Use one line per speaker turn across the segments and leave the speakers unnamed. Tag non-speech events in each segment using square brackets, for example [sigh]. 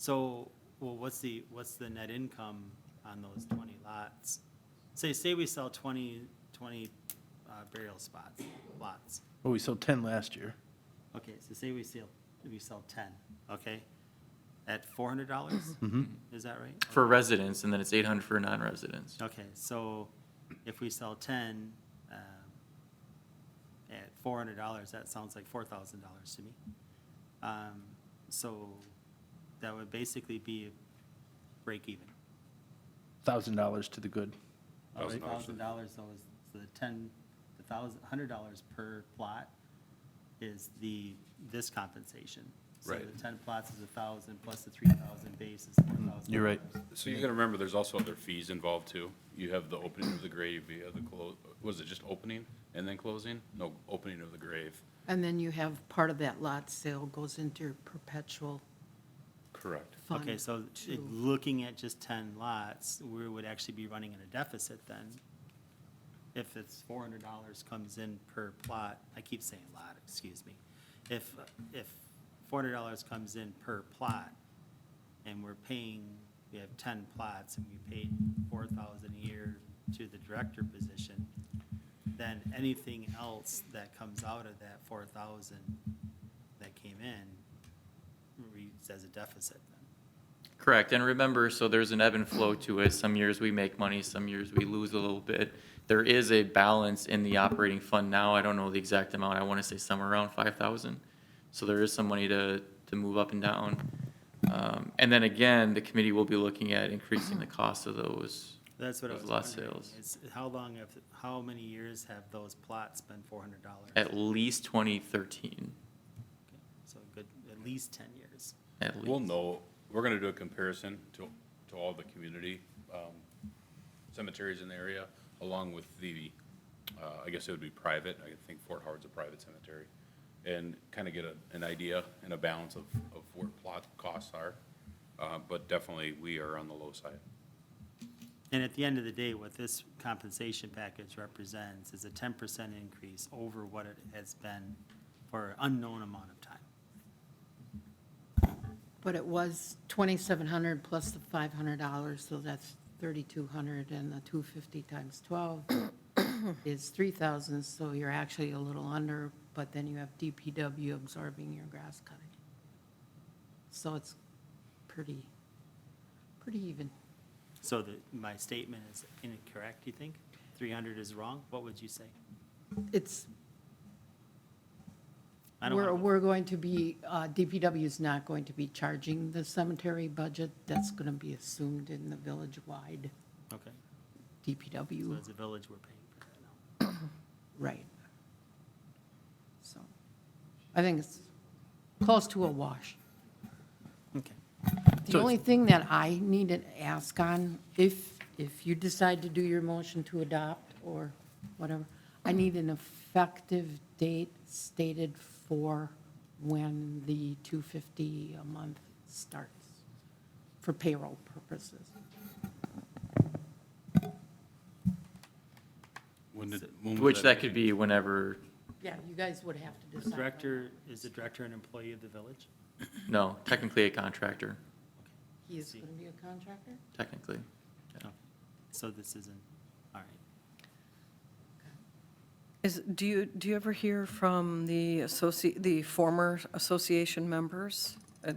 So, well, what's the, what's the net income on those twenty lots? Say, say we sell 20 20, uh, burial spots, lots.
Well, we sold 10 last year.
Okay, so say we sell, we sell ten, okay? At four hundred dollars? Is that right?
for residents, and then it's eight hundred for non-residents.
Okay, so if we sell ten, um, at four hundred dollars, that sounds like four thousand dollars to me. Um, so that would basically be break even.
$1,000 to the good.
Thousand dollars.
Thousand dollars though is the ten, the thousand, hundred dollars per plot is the, this compensation. So
Right.
the ten plots is a thousand plus the three thousand base is four thousand.
You're right.
So you gotta remember, there's also other fees involved too. You have the opening of the grave, you have the close, was it just opening and then closing? No, opening of the grave.
And then you have part of that lot sale goes into your perpetual
Correct.
fund.
Okay, so it-
to-
looking at just ten lots, we would actually be running in a deficit then. If it's four hundred dollars comes in per plot, I keep saying lot, excuse me. If, if four hundred dollars comes in per plot, and we're paying, we have ten plots, and we paid four thousand a year to the director position, then anything else that comes out of that four thousand that came in reads as a deficit then.
Correct, and remember, so there's an ebb and flow to it. Some years we make money, some years we lose a little bit. There is a balance in the operating fund now. I don't know the exact amount. I want to say somewhere around five thousand. So there is some money to, to move up and down. Um, and then again, the committee will be looking at increasing the cost of those.
That's what I
those
was
lot
wondering,
sales.
is how long have, how many years have those plots been four hundred dollars?
At least twenty thirteen,
So a good, at least ten years.
at least.
We'll know, we're gonna do a comparison to, to all the community um, cemeteries in the area, along with the, uh, I guess it would be private, I think Fort Howard's a private cemetery, and kind of get a, an idea and a balance of, of where plot costs are, Uh, but definitely, we are on the low side.
And at the end of the day, what this compensation package represents is a ten percent increase over what it has been for an unknown amount of time.
But it was 2,700 plus the $500, so that's 3,200, and the 250 times
[coughs]
12 is 3,000, so you're actually a little under, but then you have DPW absorbing your grass cutting. So it's pretty, pretty even.
So the, my statement is incorrect, you think? Three hundred is wrong? What would you say?
It's
I don't
We're,
wanna-
we're going to be, uh, DPW is not going to be charging the cemetery budget. That's going to be assumed in the village-wide
Okay, so
DPW,
as a village, we're paying for that now.
right. So I think it's close to a wash.
Okay.
So
The
it's-
only thing that I need to ask on, if, if you decide to do your motion to adopt or whatever, I need an effective date stated for when the 250 a month starts for payroll purposes.
When did, when was
Which that could be whenever,
Yeah, you guys would have to
The
decide.
director, is the director an employee of the village?
no, technically a contractor,
He is going to be a contractor?
technically.
Okay. So this isn't, all right.
Is, do you, do you ever hear from the associ, the former association members? Uh,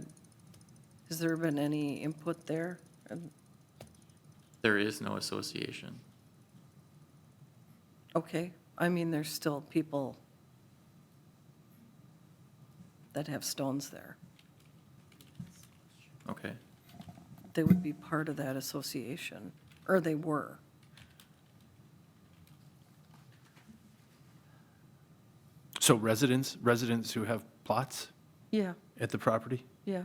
Has there been any input there? Um,
There is no association.
Okay, I mean, there's still people that have stones there.
Okay.
They would be part of that association, or they were.
So residents, residents who have plots
Yeah,
at the property?
yeah.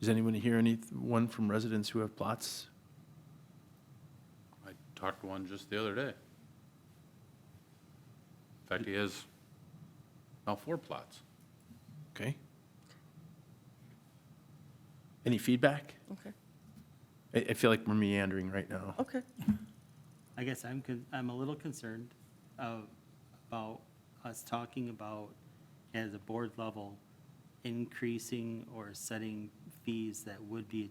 Does anyone hear anyone from residents who have plots?
I talked to one just the other day. In fact, he has now four plots.
Okay. Any feedback?
Okay,
I, I feel like we're meandering right now.
okay.
I guess I'm, con- I'm a little concerned of, about us talking about, as a board level, increasing or setting fees that would be